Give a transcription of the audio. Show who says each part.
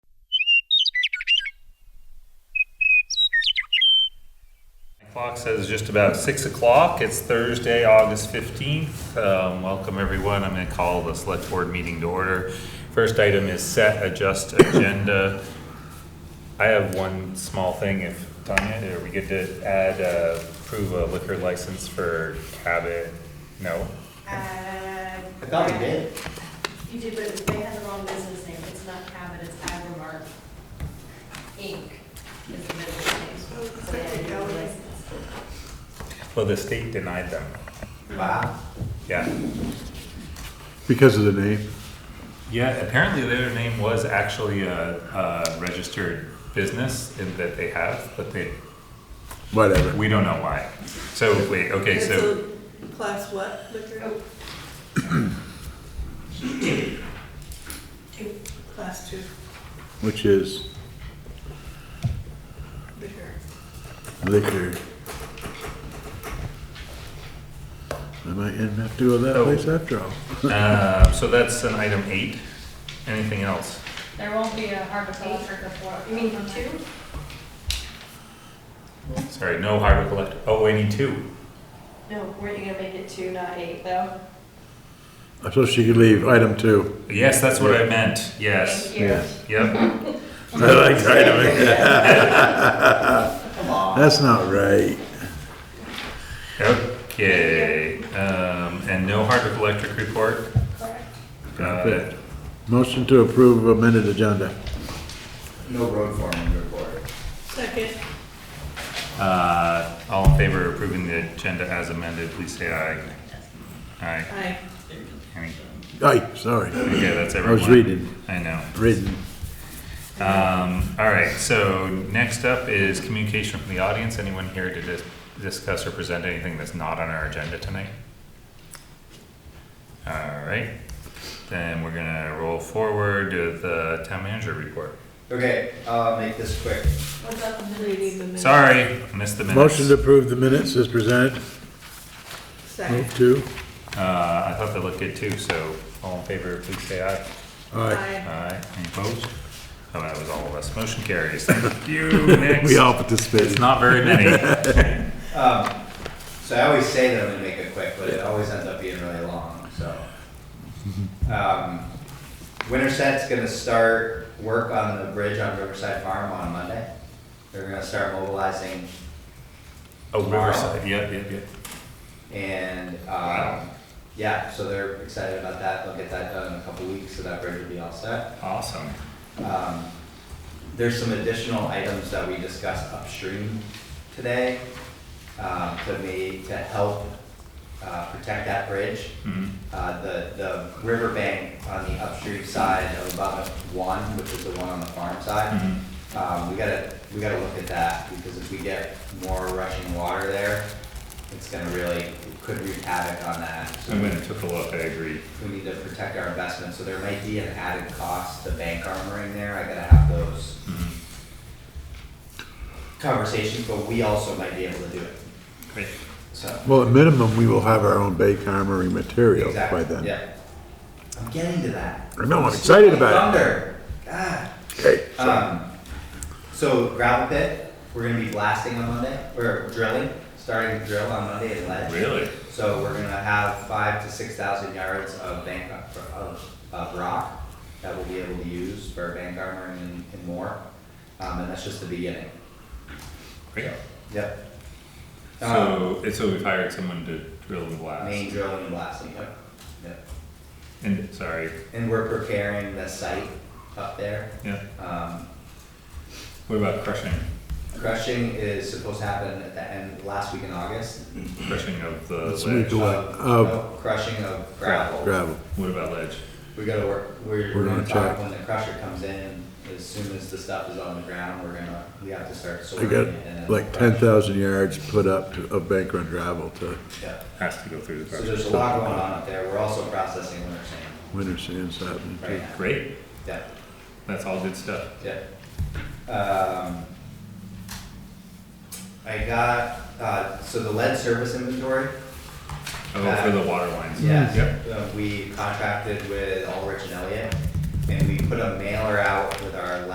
Speaker 1: Clock says just about six o'clock. It's Thursday, August fifteenth. Um, welcome everyone. I'm gonna call the select board meeting to order. First item is set adjust agenda. I have one small thing. If Tanya, are we good to add, uh, approve a liquor license for Cabot? No?
Speaker 2: Uh,
Speaker 3: I thought we did.
Speaker 2: You did, but it was- they had the wrong business name. It's not Cabot, it's Agrimark Inc. is the business name. So they had no license.
Speaker 1: Well, the state denied them.
Speaker 3: Wow.
Speaker 1: Yeah.
Speaker 4: Because of the name.
Speaker 1: Yeah, apparently their name was actually a, a registered business in that they have, but they
Speaker 4: Whatever.
Speaker 1: We don't know why. So, wait, okay,
Speaker 5: It's
Speaker 1: so,
Speaker 5: a Class what liquor? Oh. Class two
Speaker 4: Which is
Speaker 5: liquor.
Speaker 4: liquor. I might end up doing that
Speaker 1: Oh.
Speaker 4: place after all.
Speaker 1: uh, so that's an item eight. Anything else?
Speaker 6: There won't be a horticulture before.
Speaker 2: You mean two?
Speaker 1: Sorry, no harbor collector. Oh, we need two.
Speaker 2: No, weren't you gonna make it two, not eight, though?
Speaker 4: I suppose she could leave, item two.
Speaker 1: Yes, that's what I meant. Yes.
Speaker 2: Thank you.
Speaker 1: Yep.
Speaker 4: I like item eight.
Speaker 3: Come on.
Speaker 4: That's not right.
Speaker 1: Okay. Um, and no harbor collector report.
Speaker 2: Correct.
Speaker 1: Got it.
Speaker 4: Motion to approve amended agenda.
Speaker 3: No road foreman report.
Speaker 5: Second,
Speaker 1: Uh, all in favor of approving the agenda as amended, please say aye. Aye.
Speaker 5: aye.
Speaker 1: Any-
Speaker 4: Aye, sorry,
Speaker 1: Okay, that's
Speaker 4: I
Speaker 1: everyone.
Speaker 4: was reading,
Speaker 1: I know.
Speaker 4: reading.
Speaker 1: Um, all right, so next up is communication from the audience. Anyone here to dis- discuss or present anything that's not on our agenda tonight? All right, then we're gonna roll forward to the town manager report.
Speaker 3: Okay, uh, make this quick.
Speaker 2: What about the
Speaker 5: Reading the
Speaker 2: minutes?
Speaker 5: minutes.
Speaker 1: Sorry, missed the minutes.
Speaker 4: Motion to approve the minutes is presented.
Speaker 5: Second,
Speaker 4: Move to.
Speaker 1: Uh, I thought they looked good too, so all in favor, please say aye.
Speaker 4: Aye.
Speaker 5: aye.
Speaker 1: Aye, any opposed? Oh, that was all of us. Motion carries. Thank you, next.
Speaker 4: We all
Speaker 1: It's
Speaker 4: participated.
Speaker 1: not very many.
Speaker 3: Um, so I always say that I'm gonna make it quick, but it always ends up being really long, so. Um, Winterset's gonna start work on the bridge on Riverside Farm on Monday. They're gonna start mobilizing
Speaker 1: Oh, Riverside, yep, yep, yep.
Speaker 3: and,
Speaker 1: Wow.
Speaker 3: um, yeah, so they're excited about that. They'll get that done in a couple weeks, so that bridge will be all set.
Speaker 1: Awesome.
Speaker 3: Um, There's some additional items that we discussed upstream today um, to me, to help uh, protect that bridge.
Speaker 1: Mhm.
Speaker 3: Uh, The, the riverbank on the upstream side of abutment one, which is the one on the farm side,
Speaker 1: Mhm.
Speaker 3: um, we gotta, we gotta look at that because if we get more rushing water there, it's gonna really, could wreak havoc on that. So
Speaker 1: I went and took a look, I agree.
Speaker 3: we need to protect our investment, so there might be an added cost to bank armoring there, I gotta have those conversations, but we also might be able to do it,
Speaker 1: Great.
Speaker 3: so.
Speaker 4: Well, at minimum, we will have our own Bay Armory material by
Speaker 3: Exactly,
Speaker 4: then.
Speaker 3: Yeah. I'm getting to that.
Speaker 4: I know, I'm excited about it.
Speaker 3: Thunder, God.
Speaker 4: Okay.
Speaker 3: Um, so gravel pit, we're gonna be blasting on Monday, or drilling, starting to drill on Monday at lead.
Speaker 1: Really?
Speaker 3: So we're gonna have five to six thousand yards of bank, of, of rock that we'll be able to use for bank armoring and, and more. Um, and that's just the beginning.
Speaker 1: Great.
Speaker 3: Yep. Um,
Speaker 1: So, and so we've hired someone to drill and
Speaker 3: main
Speaker 1: blast.
Speaker 3: drilling and blasting, yep, yep.
Speaker 1: And, sorry,
Speaker 3: And we're preparing the site up there.
Speaker 1: yeah.
Speaker 3: Um,
Speaker 1: What about crushing?
Speaker 3: crushing is supposed to happen at the end, last week in August.
Speaker 1: Crushing of the
Speaker 4: That's
Speaker 1: ledge?
Speaker 4: Do what? Uh,
Speaker 3: Of-
Speaker 4: Of-
Speaker 3: no, Crushing of gravel.
Speaker 4: Gravel.
Speaker 1: What about ledge?
Speaker 3: We gotta work, we're,
Speaker 4: We're
Speaker 3: we're gonna
Speaker 4: gonna
Speaker 3: talk
Speaker 4: check.
Speaker 3: when the crusher comes in, as soon as the stuff is on the ground, we're gonna, we have to start
Speaker 4: I
Speaker 3: sorting it.
Speaker 4: got
Speaker 3: and then
Speaker 4: like
Speaker 3: crush.
Speaker 4: ten thousand yards put up to- of bank run gravel to
Speaker 3: Yeah,
Speaker 1: Has to go through the
Speaker 3: so
Speaker 1: crusher.
Speaker 3: there's a lot going on up there, we're also processing winter sand
Speaker 4: winter sands happening.
Speaker 3: right now.
Speaker 1: Great,
Speaker 3: Yeah,
Speaker 1: that's all good stuff.
Speaker 3: yeah. Um, I got, uh, so the lead service inventory,
Speaker 1: Oh, for the water lines.
Speaker 4: Mm.
Speaker 3: Yes,
Speaker 1: Mm. Yep.
Speaker 3: uh, we contracted with Ulrich and Elliott, and we put a mailer out with our